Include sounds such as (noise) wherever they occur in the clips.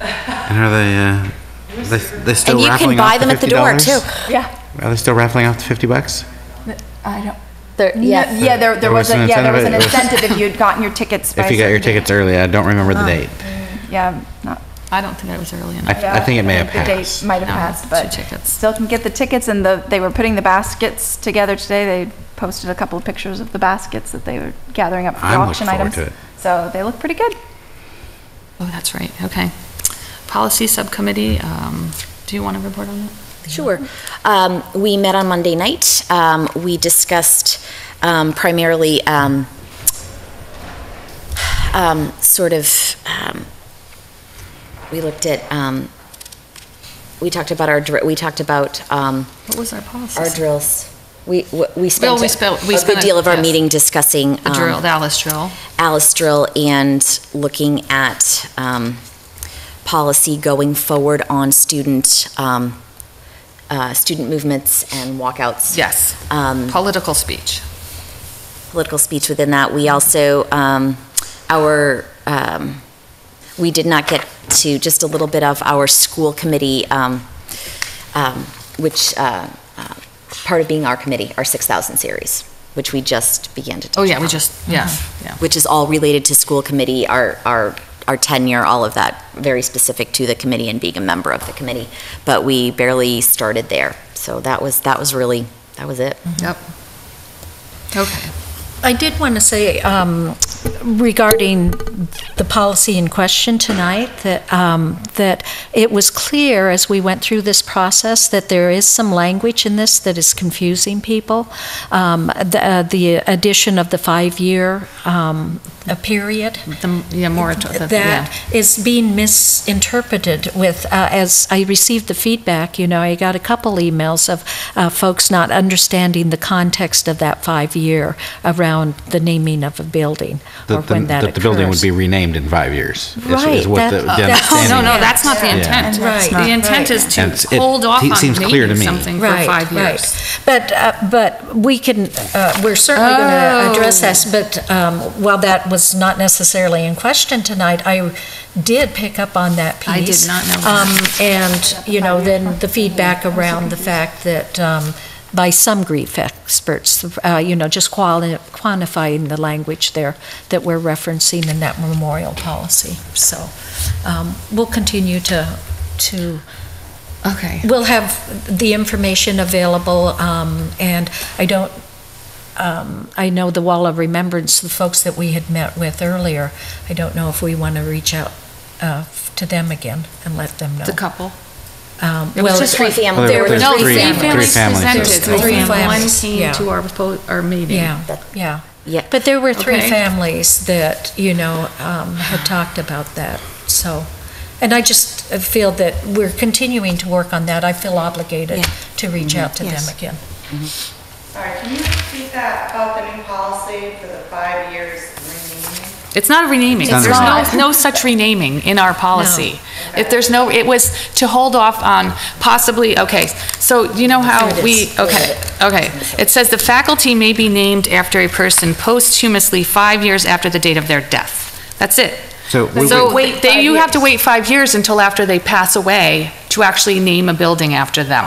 And are they, uh, they, they still And you can raffling buy off them at the door, $50? too. Yeah, Are they still raffling off the 50 bucks? I don't. There- No, yes. Yeah, there, There there was was a, an yeah, there was an incentive, it was- incentive if you'd gotten your tickets. (laughs) by If you got your certain date. tickets early, I don't remember Oh. the date. Yeah, not. I don't think I was early enough. I, I think it may have The passed. date might have No, passed, two but tickets. still can get the tickets and the, they were putting the baskets together today. They posted a couple of pictures of the baskets that they were gathering up for I'm looking auction forward items. to it. So they look pretty good. Oh, that's right, okay. Policy Subcommittee, um, do you want to report on that? Sure. Um, We met on Monday night. Um, We discussed um, primarily um, um, sort of, um, we looked at, um, we talked about our, dr- we talked about um, What was our policy? our drills. We, we- we spent. we spelt- we A spent good it, deal of our yes. meeting discussing. The um, drill, the Alice drill. Alice Drill and looking at um, policy going forward on student, um, uh, student movements and walkouts. Yes. mm. Um, Political speech. Political speech within that. We also, um, our, um, we did not get to just a little bit of our school committee, um, um, which, uh, uh, part of being our committee, our 6,000 series, which we just began to touch Oh, yeah, we on. just, yes, yeah. which is all related to school committee, our, our, our tenure, all of that, very specific to the committee and being a member of the committee. But we barely started there. So that was, that was really, that was it. Mm-hmm. Yep. Okay. I did want to say um, regarding the policy in question tonight, that, um, that it was clear as we went through this process that there is some language in this that is confusing people. Um, The uh, the addition of the five-year um, uh, period, The, yeah, moratorium, yeah. that is being misinterpreted with, uh, as I received the feedback, you know, I got a couple emails of uh, folks not understanding the context of that five-year around the naming of a building or That the- when that that the building would occurs. be renamed in five years. is- Right, Is what that- oh, the the that- understanding. Oh, No, no, is. that's not the Yeah. intent. And that's Right. The intent is to And it's- it hold off te- on seems clear to naming me. something for Right, five right. years. But, uh, but we can, uh, we're certainly going Oh. to address that, but um, while that was not necessarily in question tonight, I did pick up on that piece. I did not know that. Um, And, you know, then the feedback around the fact that, um, by some grief experts, uh, you know, just quali- quantifying the language there that we're referencing in that memorial policy. So um, we'll continue to, to Okay. We'll have the information available, um, and I don't, um, I know the Wall of Remembrance, the folks that we had met with earlier, I don't know if we want to reach out uh, to them again and let them know. The couple. Um, It was well, just Three families. There were No, three three fam- three families families presented, presented. Three and one families, came yeah. to our, po- our meeting. Yeah, yeah. Mm-hmm. Yeah. But there were three Okay. families that, you know, um, had talked about that, so. And I just feel that we're continuing to work on that. I feel obligated Yeah. Mm-hmm. to reach out to them Yes. again. Sorry, can you repeat that about the new policy for the five years remaining? It's not a renaming. It's There's no, no such renaming in our policy. If there's no, it was to hold off on possibly, okay, so you know how There it we, is. okay, okay. It says the faculty may be named after a person posthumously five years after the date of their death. That's it. So we So would- they- they, you have to wait five years until after they pass away to actually name a building after them.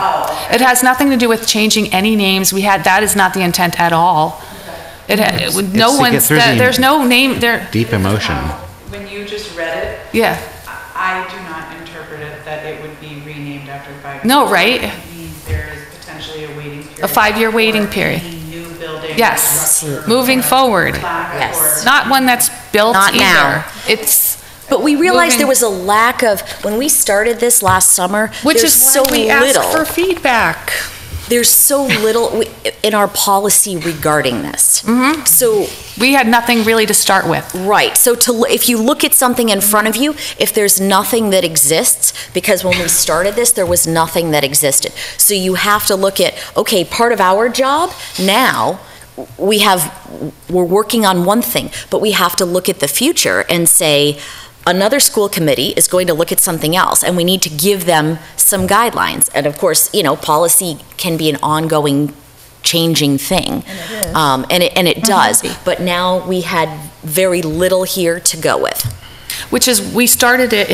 It has nothing to do with changing any names. We had, that is not the intent at all. It, ha- it would- It's no to get one's, through the- that- there's no name, there, Deep emotion. When you just read it, yeah. I I do not interpret it that it would be renamed after five years. No, right? It means there is potentially a waiting period. A five-year waiting for period. any New building. Yes, or moving forward. plaque or- Yes. Not one that's built Not now. either. It's, But we realized there Moving- was a lack of, when we started this last summer, which is there's so why we ask for little, feedback. there's so little w- in our policy regarding this. Mm-hmm. So We had nothing really to start with. Right. So to l- if you look at something in front of you, if there's nothing that exists, because when we started this, there was nothing that existed. So you have to look at okay, part of our job now we have we're working on one thing, but we have to look at the future and say another school committee is going to look at something else and we need to give them some guidelines. And of course, you know, policy can be an ongoing changing thing. Um, and it, and it does. But now we had very little here to go with. Which is, we started it